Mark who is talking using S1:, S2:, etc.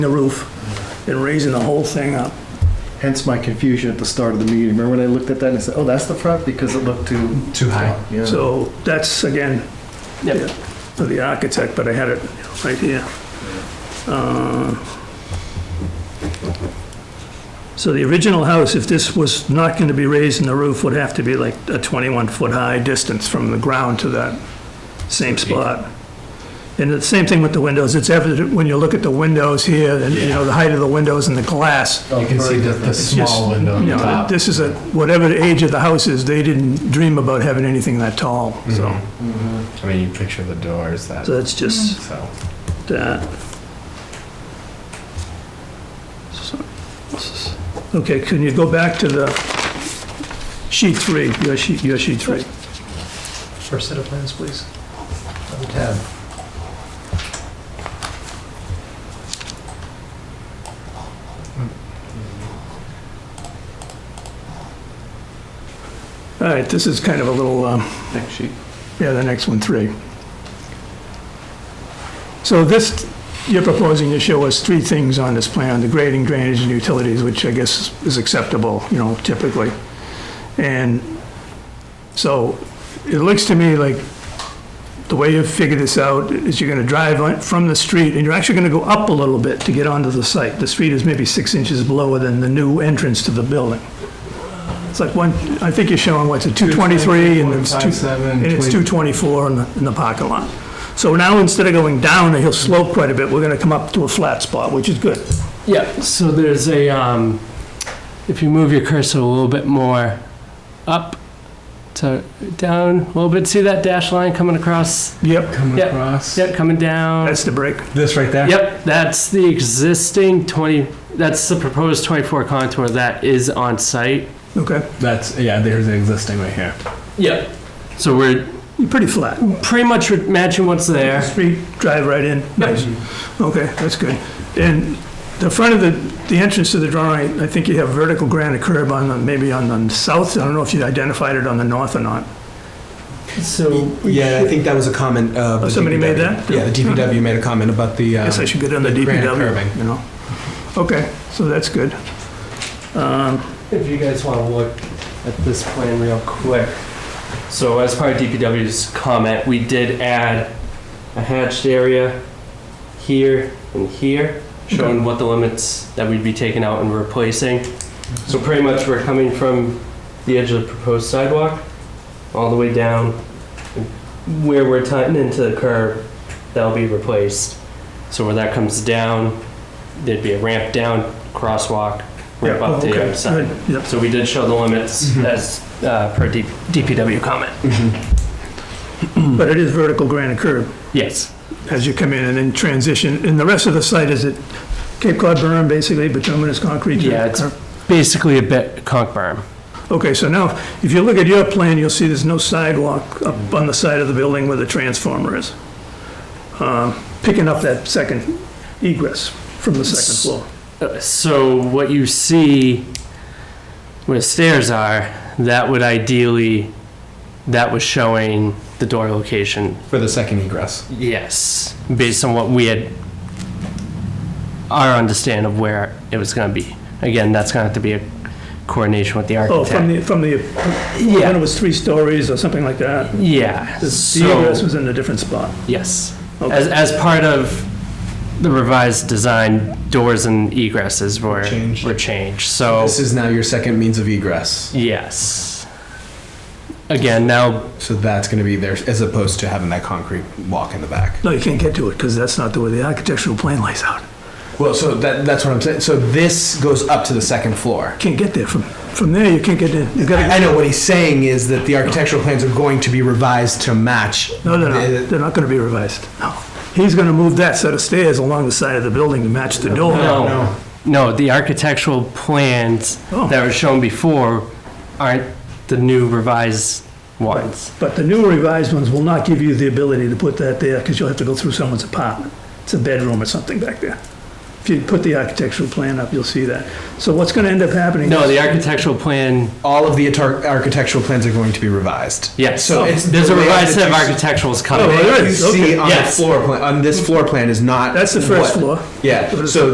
S1: the roof and raising the whole thing up.
S2: Hence my confusion at the start of the meeting. Remember when I looked at that and I said, oh, that's the front because it looked too.
S3: Too high.
S2: Yeah.
S1: So that's, again,
S3: Yep.
S1: yeah, for the architect, but I had it right here. Uh, So the original house, if this was not going to be raised in the roof, would have to be like a 21-foot-high distance from the ground to that same spot. And the same thing with the windows. It's evident when you look at the windows here, and, you know, the height of the windows and the glass.
S2: Oh,
S3: You can see the, the
S1: It's just,
S3: small window on
S1: you
S3: the
S1: know,
S3: top.
S1: This is a, whatever the age of the house is, they didn't dream about having anything that tall,
S3: Mm-hmm.
S1: so,
S3: I mean, you picture the doors that,
S1: so that's just
S3: so.
S1: that. So, this is- Okay, can you go back to the sheet three, your sheet, your sheet three?
S4: First set of plans, please. Number 10.
S1: All right, this is kind of a little, um,
S2: Next sheet.
S1: Yeah, the next one, three. So this, you're proposing to show us three things on this plan, the grading, drainage, and utilities, which I guess is acceptable, you know, typically. And so it looks to me like the way you've figured this out is you're gonna drive on- from the street, and you're actually gonna go up a little bit to get onto the site. The street is maybe six inches lower than the new entrance to the building. It's like one, I think you're showing, what's it, 223, and it's two... And it's 224 in the, in the parking lot. So now, instead of going down, he'll slope quite a bit, we're gonna come up to a flat spot, which is good.
S5: Yeah, so there's a, um, if you move your cursor a little bit more up to down a little bit, see that dash line coming across?
S1: Yep,
S3: Coming
S5: Yep.
S3: across.
S5: Yep, coming down.
S1: that's the break.
S3: This right there?
S5: Yep, that's the existing 20, that's the proposed 24 contour that is on site.
S1: Okay,
S3: That's, yeah, there's the existing right here.
S5: Yep. So we're
S1: you're pretty flat.
S5: pretty much matching what's there.
S1: Street, drive right in, nice. Okay, that's good. And the front of the, the entrance to the drawing, I think you have vertical granite curb on the, maybe on the south, I don't know if you identified it on the north or not.
S5: So.
S6: Yeah, I think that was a comment. Uh, the
S1: Oh, somebody made that?
S6: Yeah, the DPW made a comment about the. Uh,
S1: Guess I should get on the
S6: The granite
S1: DPW,
S6: curbing.
S1: you know? Okay, so that's good. Um,
S5: If you guys want to look at this plan real quick. So as part of DPW's comment, we did add a hatched area here and here, showing what the limits that we'd be taking out and replacing. So pretty much we're coming from the edge of the proposed sidewalk, all the way down, where we're tying into the curb, that'll be replaced. So where that comes down, there'd be a ramp down, crosswalk, ramp
S1: Oh,
S5: up to the
S1: okay,
S5: other side.
S1: good, Yep,
S5: So we did show the limits
S1: Mm-hmm.
S5: as uh, per D- DPW comment.
S1: but it is vertical granite curb.
S5: Yes.
S1: as you come in and then transition, and the rest of the site, is it Cape Cod berm, basically, bituminous concrete?
S5: Yeah, it's- Basically a bit conk berm.
S1: Okay, so now, if you look at your plan, you'll see there's no sidewalk up on the side of the building where the transformer is, Um, picking up that second egress from the second floor.
S5: Uh, So what you see where the stairs are, that would ideally, that was showing the door location.
S6: for the second egress.
S5: Yes, based on what we had, our understand of where it was going to be. Again, that's going to have to be a coordination with the
S1: Oh, from
S5: architect.
S1: the, from the, when it
S5: Yeah,
S1: was three stories or something like that,
S5: yeah.
S1: the the
S5: So-
S1: egress was in a different spot.
S5: Yes.
S1: Okay.
S5: As, as part of the revised design, doors and egresses were
S6: Changed.
S5: were changed. So
S6: This is now your second means of egress.
S5: yes. Again, now
S6: So that's going to be there as opposed to having that concrete walk in the back.
S1: No, you can't get to it, because that's not the way the architectural plan lays out.
S6: Well, so that, that's what I'm saying. So this goes up to the second floor.
S1: Can't get there, from, from there, you can't get in, you've got to
S6: I I know what he's saying is that the architectural plans are going to be revised to match.
S1: No, they're not.
S6: the-
S1: They're not going to be revised. No. He's going to move that set of stairs along the side of the building to match the door.
S5: no, no, the architectural plans
S1: Oh.
S5: that were shown before aren't the new revised ones.
S1: But the new revised ones will not give you the ability to put that there because you'll have to go through someone's apartment. It's a bedroom or something back there. If you put the architectural plan up, you'll see that. So what's going to end up happening?
S5: No,
S1: is-
S5: the architectural plan,
S6: All of the atar- architectural plans are going to be revised.
S5: yes. Oh,
S6: So it's
S5: There's a
S6: the layout
S5: revised set of
S6: that you-
S5: architecturals
S1: Oh,
S5: coming.
S1: there
S6: You
S1: is, okay.
S6: see on the
S5: Yes.
S6: floor plan, on this floor plan is not.
S1: That's the first floor.
S6: what- Yeah, so